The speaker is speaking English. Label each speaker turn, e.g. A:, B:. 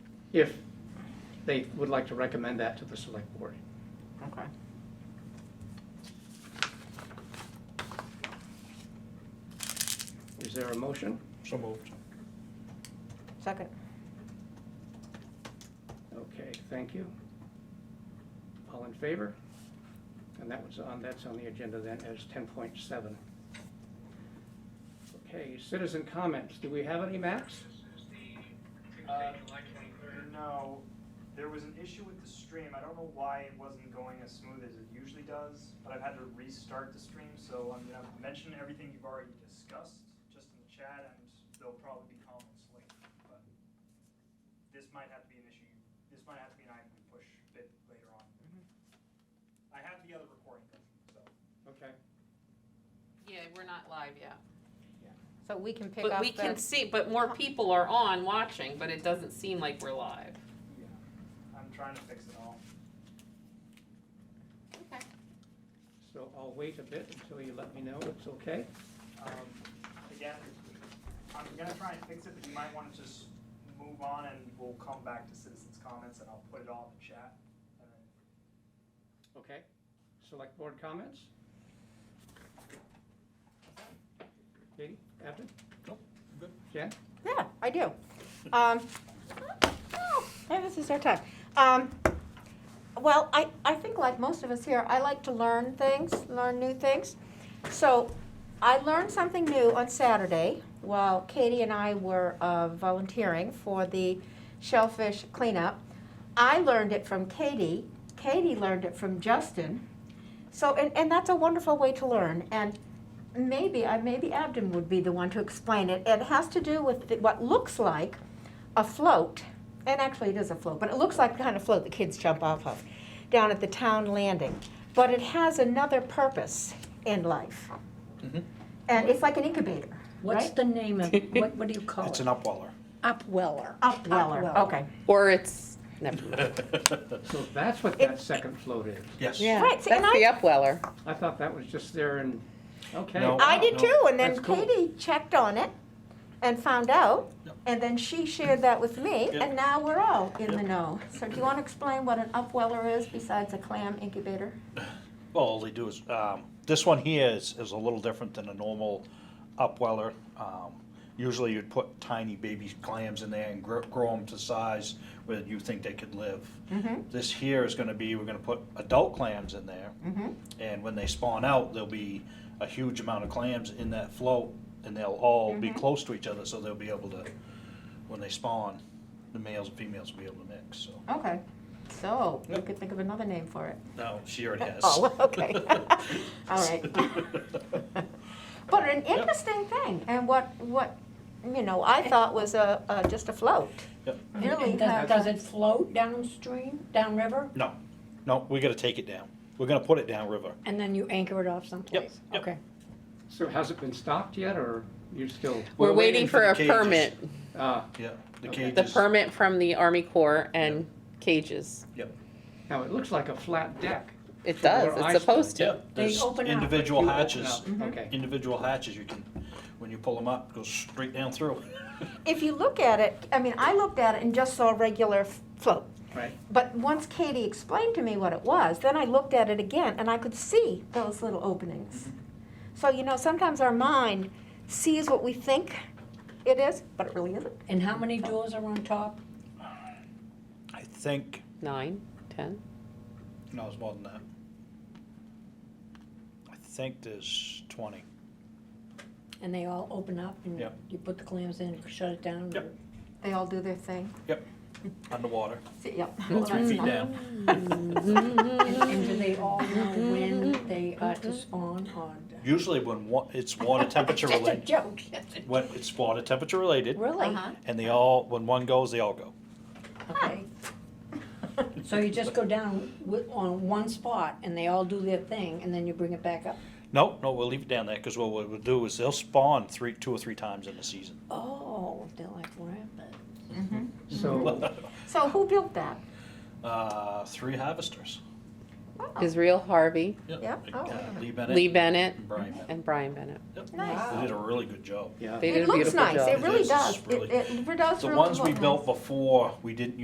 A: if they would like to recommend that to the select board.
B: Okay.
A: Is there a motion?
C: So moved.
B: Second.
A: Okay, thank you. All in favor? And that was on, that's on the agenda then as ten point seven. Okay, citizen comments. Do we have any, Max?
D: Uh, No, there was an issue with the stream. I don't know why it wasn't going as smooth as it usually does, but I've had to restart the stream, so I'm gonna mention everything you've already discussed just in the chat, and there'll probably be comments later, but this might have to be an issue, this might have to be an item we push a bit later on. I have the other recording, though, so.
A: Okay.
E: Yeah, we're not live yet.
B: So we can pick
E: But
B: up
E: we can
B: the,
E: see, but more people are on watching, but it doesn't seem like we're live.
D: Yeah. I'm trying to fix it all.
E: Okay.
A: So I'll wait a bit until you let me know it's okay.
D: Um, Again, I'm gonna try and fix it, but you might wanna just move on and we'll come back to citizens' comments and I'll put it all in the chat. and then-
A: Okay. Select board comments? Katie, Captain?
C: Nope, good.
A: Jen?
B: yeah, I do. Um, yeah, this is our time. Um, well, I, I think like most of us here, I like to learn things, learn new things. So I learned something new on Saturday while Katie and I were uh, volunteering for the shellfish cleanup. I learned it from Katie. Katie learned it from Justin. So, and, and that's a wonderful way to learn. And maybe, I maybe Abden would be the one to explain it. It has to do with the, what looks like a float, and actually it is a float, but it looks like the kind of float the kids jump off of down at the town landing. But it has another purpose in life.
C: Mhm.
B: And it's like an incubator,
F: What's
B: right?
F: the name of, what, what do you call
C: It's
F: it?
C: an upweller.
F: Upweller.
B: Upweller. Okay.
E: Or it's, never
A: So that's what that second float is.
C: Yes.
E: Yeah,
B: Right,
E: that's
B: see, and I-
E: the upweller.
A: I thought that was just there and, okay.
C: No.
B: I did
C: no,
B: too, and then
A: that's cool.
B: Katie checked on it and found out,
C: Yep.
B: and then she shared that with me,
C: Yep.
B: and now we're all in the
C: Yep.
B: know. So do you want to explain what an upweller is besides a clam incubator?
C: Well, all they do is, um, this one here is, is a little different than a normal upweller. Um, Usually you'd put tiny baby clams in there and grow, grow them to size where you think they could live.
B: Mm-hmm.
C: This here is gonna be, we're gonna put adult clams in there.
B: Mm-hmm.
C: And when they spawn out, there'll be a huge amount of clams in that float and they'll all be close to each other, so they'll be able to, when they spawn, the males and females will be able to mix, so.
B: Okay, so you
C: Yep.
B: could think of another name for it.
C: No, she already has.
B: Oh, okay. All right. But an
C: Yep.
B: interesting thing, and what, what, you know, I thought was a, a- just a float.
C: Yep.
F: And-
B: Really
F: and does-
B: has-
F: Does it float downstream, downriver,
C: No, no, we gotta take it down. We're gonna put it down river.
F: and then you anchor it off someplace?
C: yep.
F: Okay.
A: So has it been stopped yet, or you're still,
E: We're waiting for
C: the
E: a
C: cages.
E: permit,
A: uh,
C: Yeah, the
A: Okay.
C: cages.
E: the permit from the Army Corps and cages.
C: Yep,
A: now it looks like a flat deck.
E: It
A: From
E: does,
A: where I
E: it's supposed to.
C: yep.
F: They
C: There's
F: open up.
C: individual
A: You open
C: hatches,
A: up, Uh, Okay,
C: individual hatches you can, when you pull them up, it goes straight down through.
B: If you look at it, I mean, I looked at it and just saw a regular f- float.
A: right.
B: But once Katie explained to me what it was, then I looked at it again and I could see those little openings. So, you know, sometimes our mind sees what we think it is, but it really isn't.
F: And how many doors are on top?
C: I think,
E: Nine, ten?
C: no, it's more than that. I think there's twenty.
F: And they all open up and
C: Yep.
F: you put the clams in, shut it down?
C: Yep.
B: They all do their thing.
C: Yep, underwater,
B: See, yep.
C: about three feet down.
F: And and do they all know when they are to spawn or?
C: Usually when wa- it's water temperature
F: It's a
C: related,
F: joke.
C: when it's water temperature related,
F: Really?
B: Uh-huh.
C: and they all, when one goes, they all go.
F: Okay. So you just go down with, on one spot and they all do their thing and then you bring it back up?
C: No, no, we'll leave it down there, because what we'll do is they'll spawn three, two or three times in the season.
F: Oh, they're like rabbits.
A: So,
B: So who built that?
C: Uh, three harvesters.
B: Wow.
E: Israel Harvey,
B: Yeah,
C: Like,
B: oh,
C: uh,
B: yeah.
C: Lee Bennett.
E: Lee Bennett,
C: And Brian Bennett.
E: and Brian Bennett.
C: Yep.
B: Nice.
C: They did a really good job.
A: yeah.
E: They did
B: It
E: a beautiful
B: looks nice,
E: job.
B: it
C: It
B: really
C: is, it's
B: does. It,
C: really-
B: it does
C: The
B: really
C: ones
B: look
C: we
B: nice.
C: built before, we didn't